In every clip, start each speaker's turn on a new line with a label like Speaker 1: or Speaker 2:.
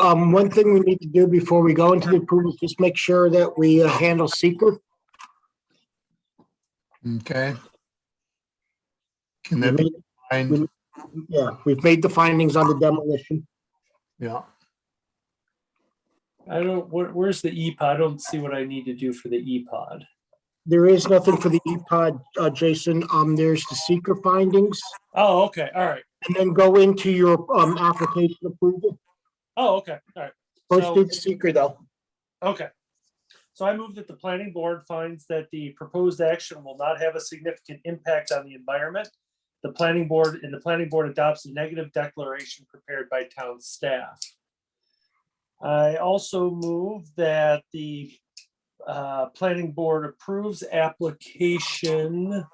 Speaker 1: Um, one thing we need to do before we go into the approval, is just make sure that we uh, handle seeker.
Speaker 2: Okay. Can that be fine?
Speaker 1: Yeah, we've made the findings on the demolition.
Speaker 2: Yeah,
Speaker 3: I don't, where, where's the E-Pod? I don't see what I need to do for the E E-Pod.
Speaker 1: There is nothing for the E-Pod, uh, Jason. Um, there's the seeker findings.
Speaker 3: Oh, okay, all right.
Speaker 1: And then go into your, um, application approval.
Speaker 3: Oh, okay, all right,
Speaker 1: First
Speaker 3: So-
Speaker 1: do the seeker though.
Speaker 3: okay. So I move that the planning board finds that the proposed action will not have a significant impact on the environment. The planning board, and the planning board adopts a negative declaration prepared by town staff. I also move that the uh, planning board approves application. uh,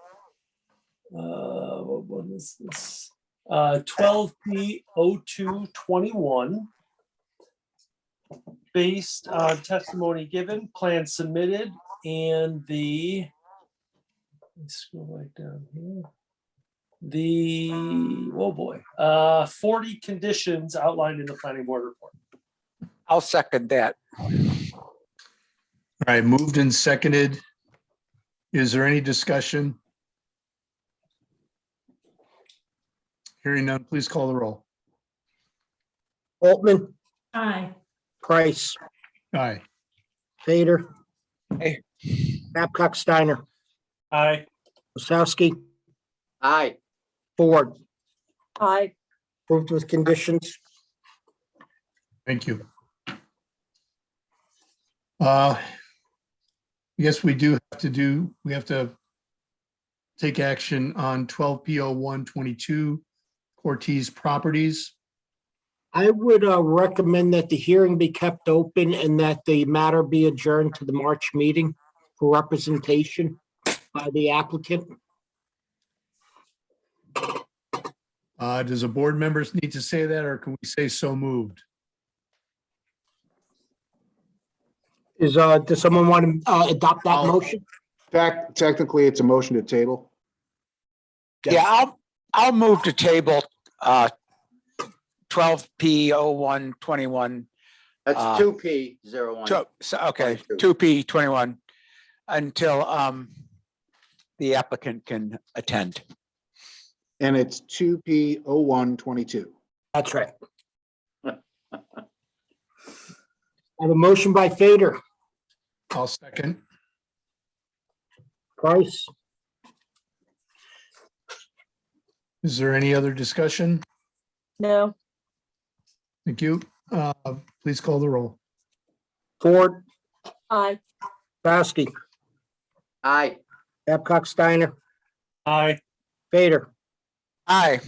Speaker 3: What what is this? Uh, Twelve P O two twenty-one. Based on testimony given, plan submitted, and the. let me Scroll right down here. The, oh boy, uh, forty conditions outlined in the planning board report.
Speaker 4: I'll second that.
Speaker 2: all right, moved and seconded. Is there any discussion? Hearing none, please call the roll.
Speaker 1: Altman,
Speaker 5: Aye.
Speaker 1: Price,
Speaker 2: Aye,
Speaker 1: Vader.
Speaker 4: Aye.
Speaker 1: Babcock Steiner,
Speaker 3: Aye.
Speaker 1: Wasowski,
Speaker 4: Aye.
Speaker 1: Ford,
Speaker 5: Aye.
Speaker 1: approved with conditions.
Speaker 2: thank you. Uh, Yes, we do have to do, we have to take action on 12 PO 122 Ortiz Properties.
Speaker 1: I would uh, recommend that the hearing be kept open and that the matter be adjourned to the March meeting for representation by the applicant.
Speaker 2: Uh, does a board members need to say that or can we say so moved?
Speaker 1: Is, uh, does someone want to uh, adopt that
Speaker 2: I'll-
Speaker 1: motion?
Speaker 6: Tec- Technically, it's a motion to table.
Speaker 4: Yeah, I'll, I'll move to table uh 12P0121. Uh,
Speaker 7: That's two P zero one.
Speaker 4: So, so, okay,
Speaker 7: 22.
Speaker 4: 2P21 until um the applicant can attend.
Speaker 6: And it's two P O one twenty-two.
Speaker 1: That's right. I have a motion by Fader,
Speaker 2: I'll second.
Speaker 1: Price,
Speaker 2: Is there any other discussion?
Speaker 5: No.
Speaker 2: Thank you. Uh, please call the roll.
Speaker 1: Ford,
Speaker 5: Aye.
Speaker 1: Basky,
Speaker 7: Aye,
Speaker 1: Babcock Steiner,
Speaker 3: Aye,
Speaker 1: Fader,
Speaker 4: Aye,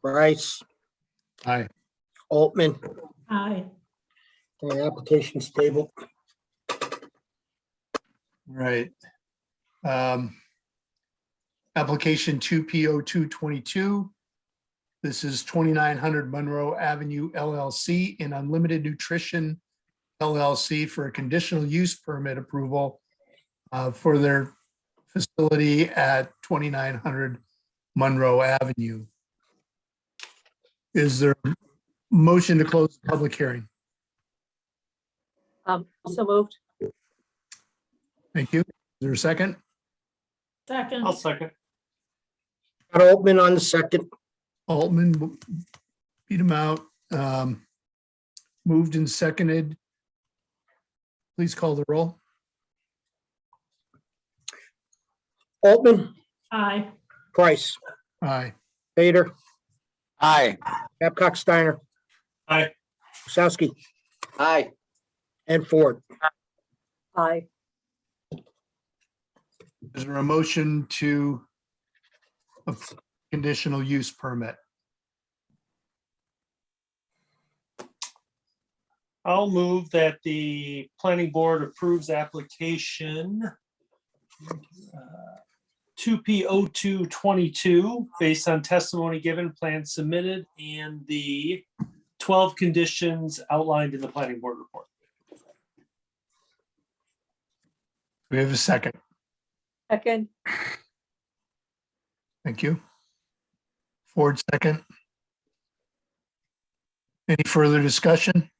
Speaker 1: Price,
Speaker 2: Aye.
Speaker 1: Altman,
Speaker 5: Aye.
Speaker 1: and the application's tabled.
Speaker 2: Right. Um, Application two P O two twenty-two. This is twenty-nine hundred Monroe Avenue LLC in Unlimited Nutrition LLC for a conditional use permit approval uh, for their facility at twenty-nine hundred Monroe Avenue. Is there a motion to close the public hearing?
Speaker 5: Um, so moved.
Speaker 2: Thank you. Is there a second?
Speaker 5: Second.
Speaker 3: I'll second.
Speaker 1: Got Altman on the second,
Speaker 2: Altman w- beat him out. Um, Moved and seconded. Please call the roll.
Speaker 1: Altman,
Speaker 5: Aye.
Speaker 1: Price,
Speaker 2: Aye.
Speaker 1: Fader,
Speaker 4: aye,
Speaker 1: Babcock Steiner.
Speaker 3: Aye.
Speaker 1: Wasowski
Speaker 7: aye,
Speaker 1: and Ford.
Speaker 5: Aye.
Speaker 2: Is there a motion to a conditional use permit?
Speaker 3: I'll move that the planning board approves application uh, two P O two twenty-two, based on testimony given, plan submitted, and the twelve conditions outlined in the planning board report.
Speaker 2: We have a second.
Speaker 5: Second.
Speaker 2: Thank you. Ford, second. Any further discussion?